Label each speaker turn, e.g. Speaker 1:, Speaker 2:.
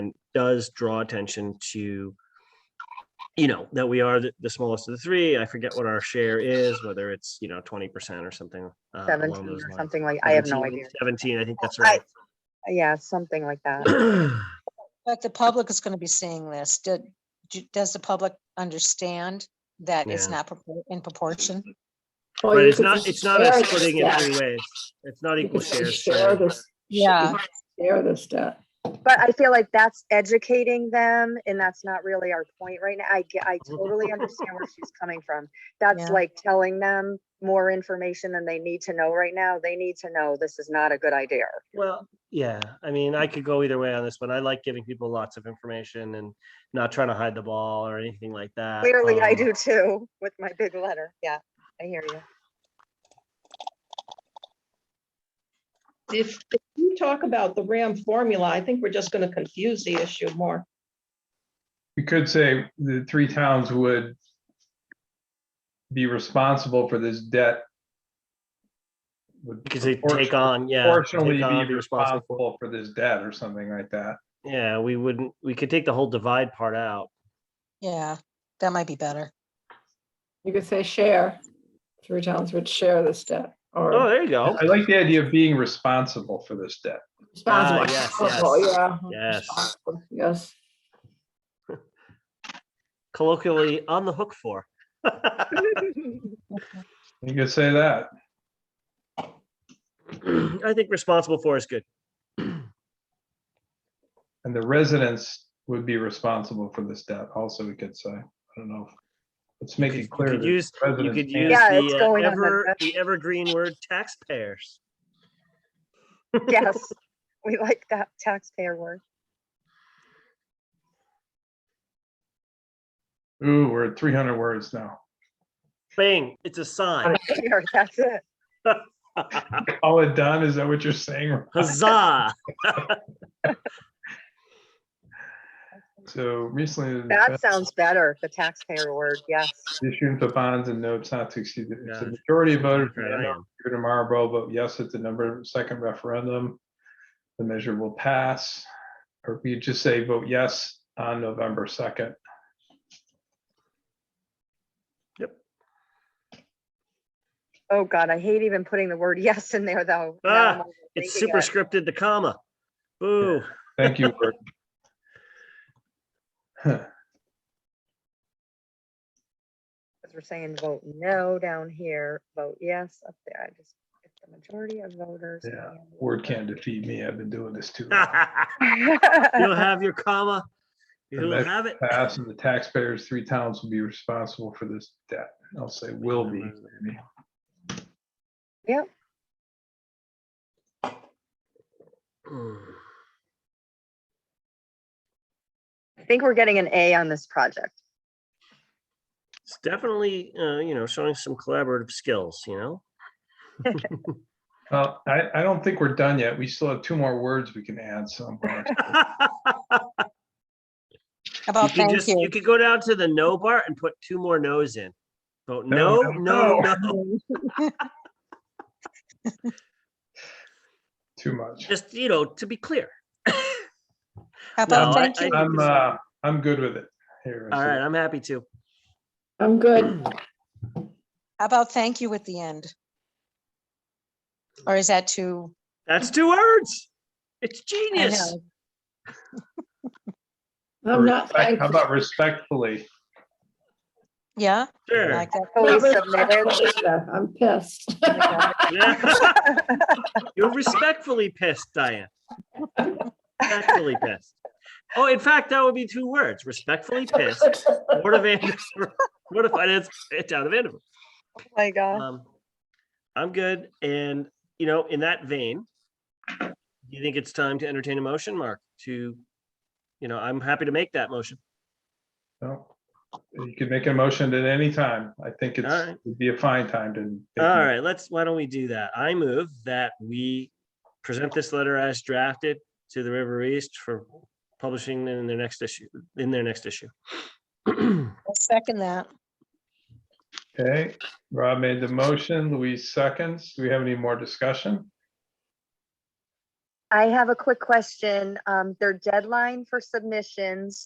Speaker 1: does draw attention to, you know, that we are the the smallest of the three. I forget what our share is, whether it's, you know, twenty percent or something. uh, along
Speaker 2: seventeen
Speaker 1: those
Speaker 2: or
Speaker 1: lines.
Speaker 2: something like, I have no
Speaker 1: 17,
Speaker 2: idea.
Speaker 1: Seventeen, I think that's
Speaker 2: I-
Speaker 1: right.
Speaker 2: Yeah, something like that.
Speaker 3: But the public is going to be seeing this. Did, do- does the public understand that it's
Speaker 1: Yeah.
Speaker 3: not propor- in proportion?
Speaker 4: Or
Speaker 1: But
Speaker 4: you
Speaker 1: it's
Speaker 4: could
Speaker 1: not,
Speaker 4: just
Speaker 1: it's not a
Speaker 4: share the
Speaker 1: splitting in
Speaker 4: stat.
Speaker 1: three ways. It's not
Speaker 4: You
Speaker 1: equal
Speaker 4: could just
Speaker 1: shares.
Speaker 4: Share
Speaker 1: sorry.
Speaker 4: this.
Speaker 3: Yeah.
Speaker 4: Share the stat.
Speaker 2: But I feel like that's educating them and that's not really our point right now. I, ge- I totally understand where she's coming from. That's
Speaker 3: Yeah.
Speaker 2: like telling them more information than they need to know right now. They need to know this is not a good idea.
Speaker 1: Well, yeah, I mean, I could go either way on this one. I like giving people lots of information and not trying to hide the ball or anything like that.
Speaker 2: Clearly I
Speaker 1: Um,
Speaker 2: do too with my big letter. Yeah, I hear you.
Speaker 4: If if you talk about the RAM formula, I think we're just going to confuse the issue more.
Speaker 5: You could say the three towns would be responsible for this debt. Would
Speaker 1: Because they take on, yeah. take
Speaker 5: Fortunately,
Speaker 1: on,
Speaker 5: be
Speaker 1: be responsible.
Speaker 5: responsible for this debt or something like that.
Speaker 1: Yeah, we wouldn't, we could take the whole divide part out.
Speaker 3: Yeah, that might be better.
Speaker 6: You could say share, three towns would share the step
Speaker 1: Oh,
Speaker 6: or
Speaker 1: there you go.
Speaker 5: I like the idea of being responsible for this debt.
Speaker 6: responsible.
Speaker 1: ah, yes,
Speaker 6: responsible,
Speaker 1: yes,
Speaker 6: yeah,
Speaker 1: yes.
Speaker 6: responsible, Yes.
Speaker 1: Colloquially, on the hook for.
Speaker 5: You could say that.
Speaker 1: I think responsible for is good.
Speaker 5: And the residents would be responsible for this debt also, we could say. I don't know. Let's make
Speaker 1: You
Speaker 5: it
Speaker 1: could-
Speaker 5: clear.
Speaker 1: You could
Speaker 5: that
Speaker 1: use, you
Speaker 5: residents
Speaker 1: could
Speaker 5: can't-
Speaker 1: use
Speaker 2: Yeah, it's
Speaker 1: the uh,
Speaker 2: going on the
Speaker 1: ever,
Speaker 2: rest.
Speaker 1: the evergreen word taxpayers.
Speaker 2: Yes, we like that taxpayer word.
Speaker 5: Ooh, we're at three hundred words now.
Speaker 1: Bang, it's a sign.
Speaker 2: Here, That's it.
Speaker 5: All it done, is that what you're saying? Ron?
Speaker 1: Huzzah.
Speaker 5: So recently. the
Speaker 2: That
Speaker 5: defense-
Speaker 2: sounds better, the taxpayer word, yes.
Speaker 5: Issuance of bonds and notes not to exceed, the- if the
Speaker 1: Yeah.
Speaker 5: majority of voters
Speaker 1: Right, I am.
Speaker 5: here tomorrow vote yes at the number second referendum, the measure will pass, or we just say vote yes on November second.
Speaker 2: Oh, God, I hate even putting the word yes in there, though. Now
Speaker 1: Ah,
Speaker 2: I'm overthinking
Speaker 1: It's
Speaker 2: it.
Speaker 1: superscripted to comma. Boo.
Speaker 5: Thank you. Bert. Huh,
Speaker 2: Because we're saying vote no down here, vote yes up there. I just, if the majority of voters.
Speaker 5: Yeah, Word can't defeat me. I've been doing this too. long.
Speaker 1: You'll
Speaker 2: and-
Speaker 1: have your comma.
Speaker 5: The
Speaker 1: You'll
Speaker 5: measure
Speaker 1: have it.
Speaker 5: Pass and the taxpayers, three towns will be responsible for this debt. I'll say will be. maybe.
Speaker 1: Mm.
Speaker 2: I think we're getting an A on this project.
Speaker 1: It's definitely, uh, you know, showing some collaborative skills, you know?
Speaker 5: Well, I, I don't think we're done yet. We still have two more words we can add somewhere.
Speaker 1: You
Speaker 3: About
Speaker 1: could
Speaker 3: thank
Speaker 1: just, you
Speaker 3: you.
Speaker 1: could go down to the no bar and put two more no's in. Vote no,
Speaker 5: No,
Speaker 1: no,
Speaker 5: no,
Speaker 1: no.
Speaker 5: Too much.
Speaker 1: Just, you know, to be clear.
Speaker 3: How
Speaker 1: No,
Speaker 3: about
Speaker 1: I-
Speaker 3: thank
Speaker 1: I-
Speaker 3: you?
Speaker 5: I'm, uh, I'm good with it. Here. I
Speaker 1: All
Speaker 5: see.
Speaker 1: right, I'm happy to.
Speaker 6: I'm good.
Speaker 3: How about thank you at the end? Or is that too?
Speaker 1: That's two words. It's
Speaker 3: I
Speaker 1: genius.
Speaker 3: know.
Speaker 6: I'm not
Speaker 5: Respect- How
Speaker 6: thankful.
Speaker 5: about respectfully?
Speaker 3: Yeah, I
Speaker 1: Sure.
Speaker 3: like that.
Speaker 2: Fully
Speaker 6: Not Oh
Speaker 2: submitted.
Speaker 6: respectful either. I'm pissed.
Speaker 1: You're respectfully pissed, Diane. Respectfully pissed. Oh, in fact, that would be two words. Respectfully pissed. Board of Andover, Board of Finance, Town of Andover.
Speaker 2: Oh My God.
Speaker 1: Um, I'm good. And, you know, in that vein, do you think it's time to entertain a motion, Mark, to, you know, I'm happy to make that motion.
Speaker 5: No. You could make a motion at any time. I think
Speaker 1: All
Speaker 5: it's,
Speaker 1: right.
Speaker 5: would be a fine time to. make
Speaker 1: All
Speaker 5: one.
Speaker 1: right, let's, why don't we do that? I move that we present this letter as drafted to the River East for publishing in their next issue, in their next issue.
Speaker 3: I'll Second that.
Speaker 5: Okay, Rob made the motion, Louise seconds. Do we have any more discussion?
Speaker 2: I have a quick question. Um, their deadline for submissions